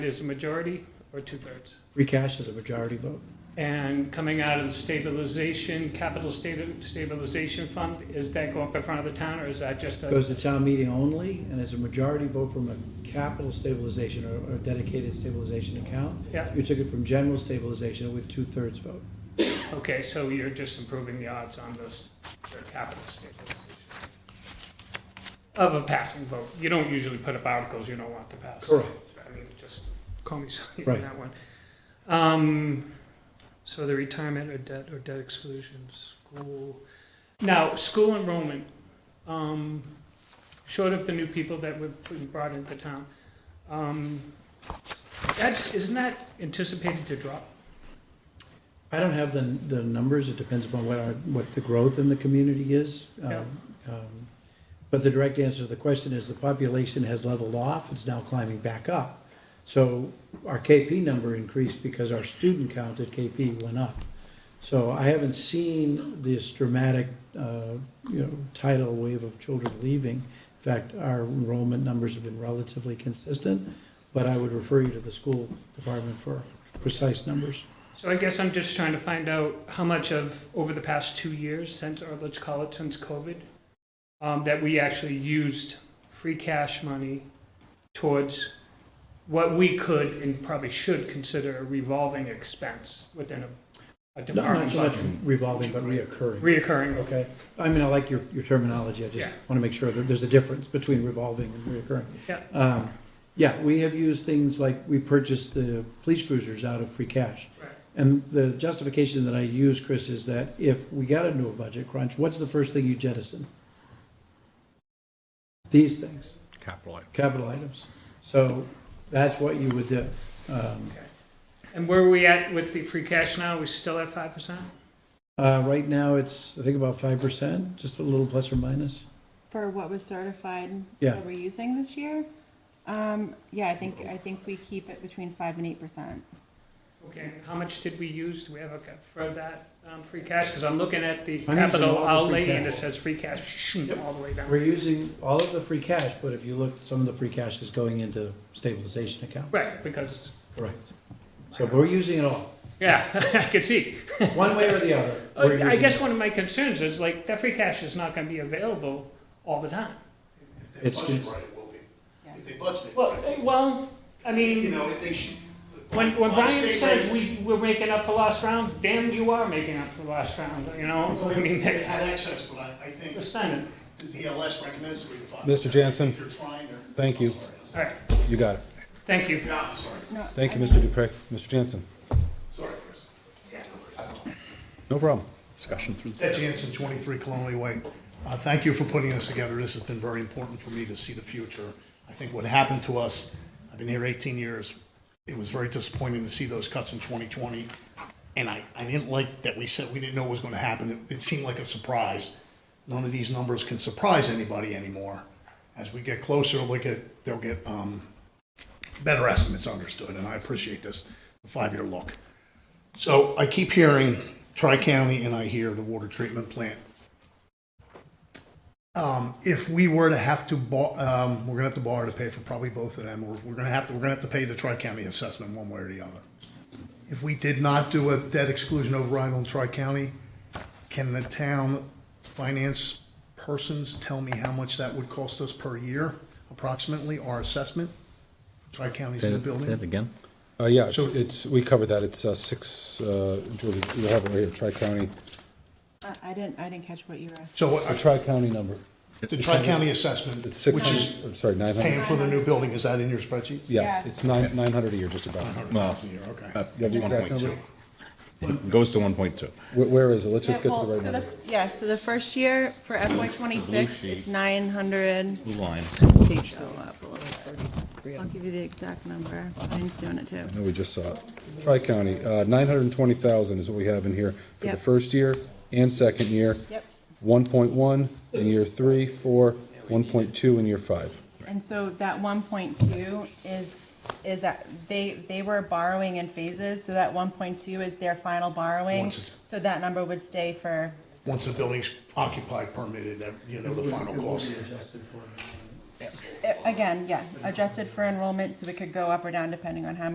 is a majority or two-thirds. Free cash is a majority vote. And coming out of the stabilization, capital sta- stabilization fund, is that going up in front of the town or is that just a? Goes to town meeting only, and it's a majority vote from a capital stabilization or or dedicated stabilization account. Yeah, You took it from general stabilization with two-thirds vote. okay, so you're just improving the odds on this, their capital stabilization. Of a passing vote. You don't usually put up articles you don't want to pass. I mean, just call me silly on Right. that one. Um, so the retirement or debt or debt exclusion, school. Now, school enrollment, um, short of the new people that were brought into town, um, that's, isn't that anticipated to drop? I don't have the, the numbers, it depends upon what our, what the growth in the community is. Um, Yeah. um, But the direct answer to the question is the population has leveled off, it's now climbing back up. So our KP number increased because our student count at KP went up. So I haven't seen this dramatic, uh, you know, tidal wave of children leaving. In fact, our enrollment numbers have been relatively consistent, but I would refer you to the school department for precise numbers. So I guess I'm just trying to find out how much of, over the past two years, since, or let's call it since COVID, um, that we actually used free cash money towards what we could and probably should consider a revolving expense within a, a Not not department so much budget. revolving, but reoccurring, Reoccurring, okay? I mean, I like your, your terminology, I just Yeah. want to make sure that there's a difference between revolving and reoccurring. Yeah. Um, Yeah, we have used things like, we purchased the police cruisers out of free cash. Right. And the justification that I use, Chris, is that if we got into a budget crunch, what's the first thing you jettison? These things capital item. capital items. So that's what you would do. Um, and where are we at with the free cash now, we still at five percent? uh, Right now, it's, I think about 5%, just a little plus or minus. for what was certified Yeah. that we're using this year. Um, yeah, I think, I think we keep it between five and eight percent. Okay, how much did we use, do we have a, ca- for that, um, free cash, because I'm looking at the I'm using all capital the free outlay and it cash. says free cash, shoot, all the way down. We're using all of the free cash, but if you look, some of the free cash is going into stabilization accounts. Right, because Correct. So we're using it all, Yeah, I can see. one way or the other. we're I using guess it. one of my concerns is like that free cash is not going to be available all the time. If they It's- budget it's- right, it will be. If they budget it, Well, right. eh, well, I you mean, know, if they should. when, when on Brian state says rate- we, we're making up for lost round, damn, you are making up for lost round, you know? Well, I mean, They that's, had access, but I, I think understand it. the DLS recommends three to five. Mr. Jansen, If you're trying to. thank you. I'm sorry. All right, You got it. thank you. Yeah, I'm sorry, No, Thank you, I- Mr. Dupre. Mr. Jansen, sorry, Chris. no problem. discussion through the Ted Jansen, 23 Colonial Way. Uh, Thank you for putting this together. This has been very important for me to see the future. I think what happened to us, I've been here 18 years, it was very disappointing to see those cuts in 2020. And I, I didn't like that we said we didn't know what was going to happen. It- It seemed like a surprise. None of these numbers can surprise anybody anymore. As we get closer, they'll get, they'll get um, better estimates understood, and I appreciate this, five-year look. So I keep hearing Tri-County and I hear the water treatment plant. Um, if we were to have to bor, um, we're gonna have to borrow to pay for probably both of them, or we're gonna have to, we're gonna have to pay the Tri-County assessment one way or the other. If we did not do a debt exclusion override on Tri-County, can the town finance persons tell me how much that would cost us per year approximately, our assessment? Tri-County's new building? again? Uh, yeah, it's, So- it's, we covered that. It's, uh, six, uh, Julie, you have it right here, tri-county, I, I didn't, I didn't catch what you were asking. So a uh, tri-county number. the tri-county assessment, It's six, which is I'm sorry, nine paying hundred. for the new building, is that in your spreadsheet? Yeah, Yeah. it's nine, nine hundred a year, just about. Well, Thousand a year, okay. uh, You have the exact 1.2. number? Goes to 1.2. Where, where is it? Let's just Yeah, get to the well, right so number. Yeah, so the first year for FY twenty-six, sheet. it's nine hundred. Blue line. I'll give you the exact number. Mine's doing it too. No, we just saw it. Tri-county, uh, nine hundred and twenty thousand is what we have in here for the Yep. first year and second year. Yep. One point one in year three, four, one point two in year five. And so that one point two is, is that, they, they were borrowing in phases, so that one point two is their final borrowing. Once it's- So that number would stay for Once the building's occupied, permitted, that, you know, the final cost. again, yeah, adjusted for enrollment, so it could go up or down depending on how